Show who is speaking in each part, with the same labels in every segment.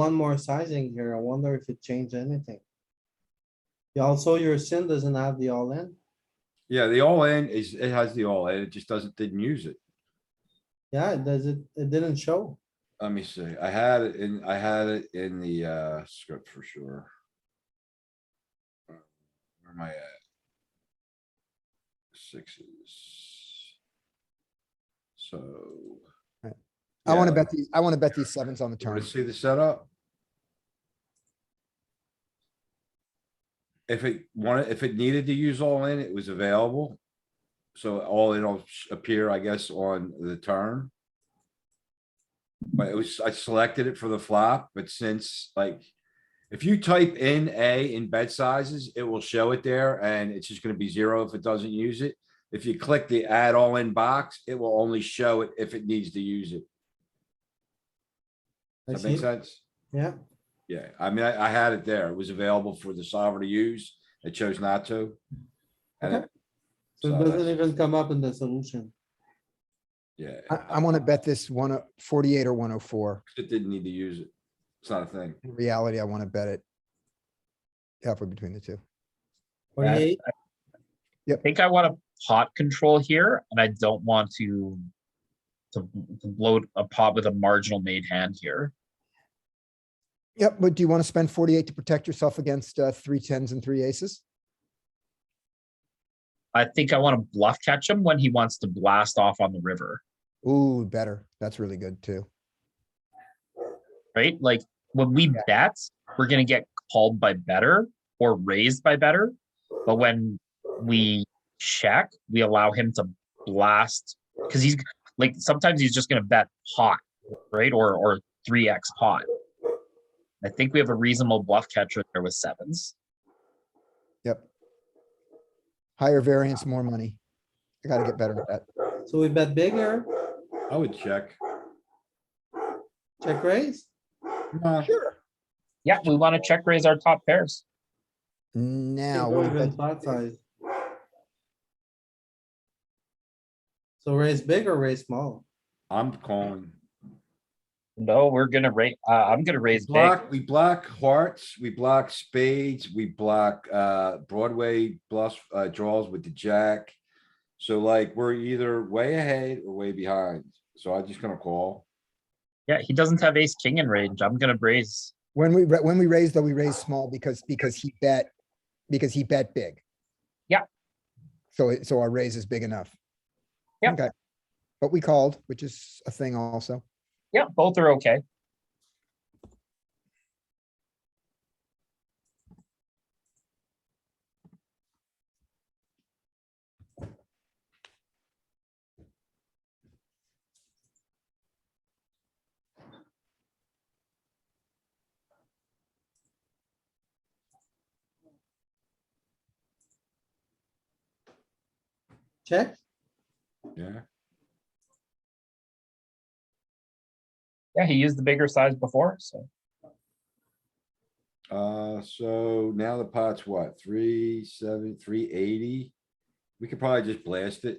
Speaker 1: one more sizing here. I wonder if it changed anything. Yeah, also your sin doesn't have the all in.
Speaker 2: Yeah, the all in is, it has the all in, it just doesn't, didn't use it.
Speaker 1: Yeah, it does it, it didn't show.
Speaker 2: Let me see, I had it in, I had it in the uh script for sure. Uh, Where am I at? Sixes. So.
Speaker 3: I wanna
Speaker 2: Yeah,
Speaker 3: bet these, I wanna bet these sevens on the
Speaker 2: you wanna
Speaker 3: turn.
Speaker 2: see the setup? If it wanted, if it needed to use all in, it was available. So all in will sh- appear, I guess, on the turn. But it was, I selected it for the flop, but since like, if you type in A in bed sizes, it will show it there and it's just gonna be zero if it doesn't use it. If you click the add all in box, it will only show it if it needs to use it.
Speaker 1: I
Speaker 2: That
Speaker 1: see.
Speaker 2: makes sense?
Speaker 1: Yeah,
Speaker 2: Yeah, I mean, I, I had it there. It was available for the sovereign to use. It chose not to. And
Speaker 1: Okay.
Speaker 2: it,
Speaker 1: so
Speaker 2: So
Speaker 1: it doesn't
Speaker 2: that's-
Speaker 1: even come up in the solution.
Speaker 2: yeah,
Speaker 3: I, I wanna bet this one o- 48 or one oh four.
Speaker 2: it didn't need to use it. It's not a thing.
Speaker 3: In reality, I wanna bet it. Halfway between the two.
Speaker 1: Forty-eight,
Speaker 4: I think I want to pot control here, and I don't want to to, to bloat a pot with a marginal made hand here.
Speaker 3: Yep, but do you wanna spend forty-eight to protect yourself against, uh, three tens and three aces?
Speaker 4: I think I want to bluff catch him when he wants to blast off on the river,
Speaker 3: Ooh, better. That's really good too.
Speaker 4: right? Like when we bet, we're gonna get called by better or raised by better, but when we check, we allow him to blast because he's like sometimes he's just gonna bet pot, right? Or or three x pot. I think we have a reasonable bluff catcher there with sevens.
Speaker 3: Yep. Higher variance, more money. I gotta get better at that.
Speaker 1: so we bet bigger,
Speaker 2: I would check.
Speaker 1: check raise.
Speaker 2: Nah,
Speaker 3: Sure.
Speaker 4: Yeah, we want to check raise our top pairs.
Speaker 3: Now,
Speaker 1: Can't
Speaker 3: what
Speaker 1: go
Speaker 3: if
Speaker 1: even
Speaker 3: that's-
Speaker 1: flat size. So raise big or raise small?
Speaker 2: I'm calling.
Speaker 4: No, we're gonna raise, uh, I'm gonna raise big.
Speaker 2: Block, we block hearts, we block spades, we block, uh, Broadway bluffs, uh, draws with the jack. So like, we're either way ahead or way behind. So I'm just gonna call.
Speaker 4: Yeah, he doesn't have ace king in range. I'm gonna raise.
Speaker 3: when we, ra- when we raise though, we raise small because, because he bet, because he bet big.
Speaker 4: Yep.
Speaker 3: So, it- so our raise is big enough.
Speaker 4: Yep.
Speaker 3: Okay. But we called, which is a thing also.
Speaker 4: Yeah, both are okay.
Speaker 1: Check,
Speaker 2: Yeah,
Speaker 4: Yeah, he used the bigger size before, so
Speaker 2: uh, so now the pot's what, three, seven, three eighty? We could probably just blast it.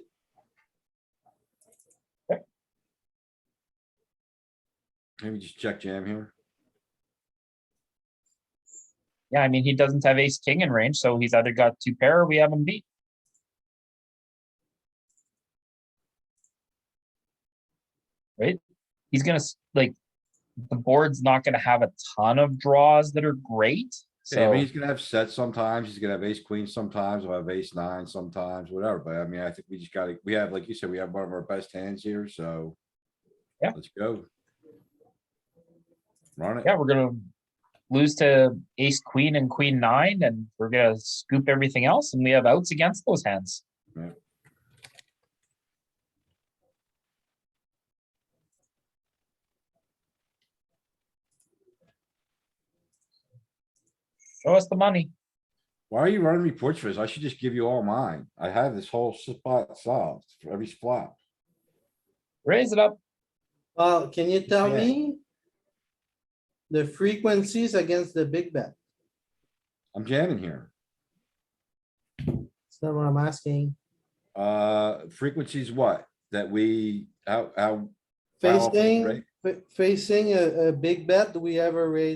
Speaker 2: Maybe just check jam here.
Speaker 4: yeah, I mean, he doesn't have ace king in range, so he's either got two pair or we have him beat. Right? He's gonna s- like, the board's not gonna have a ton of draws that are great,
Speaker 2: Yeah, I
Speaker 4: so.
Speaker 2: mean, he's gonna have sets sometimes, he's gonna have ace queen sometimes, we'll have ace nine sometimes, whatever, but I mean, I think we just gotta, we have, like you said, we have one of our best hands here, so.
Speaker 4: Yeah.
Speaker 2: Let's go. Run it,
Speaker 4: yeah, we're gonna lose to ace, queen and queen nine, and we're gonna scoop everything else, and we have outs against those hands.
Speaker 2: Yeah.
Speaker 4: Show us the money.
Speaker 2: why are you running reports for this? I should just give you all mine, I have this whole spot solved for every flop.
Speaker 4: Raise it up.
Speaker 1: well, can you tell
Speaker 2: Yeah.
Speaker 1: me? The frequencies against the big bet,
Speaker 2: I'm jamming here.
Speaker 1: that's not what I'm asking.
Speaker 2: Uh, frequencies what? That we, how, how? how often, right?
Speaker 1: Facing, fa- facing a, a big bet, do we ever raise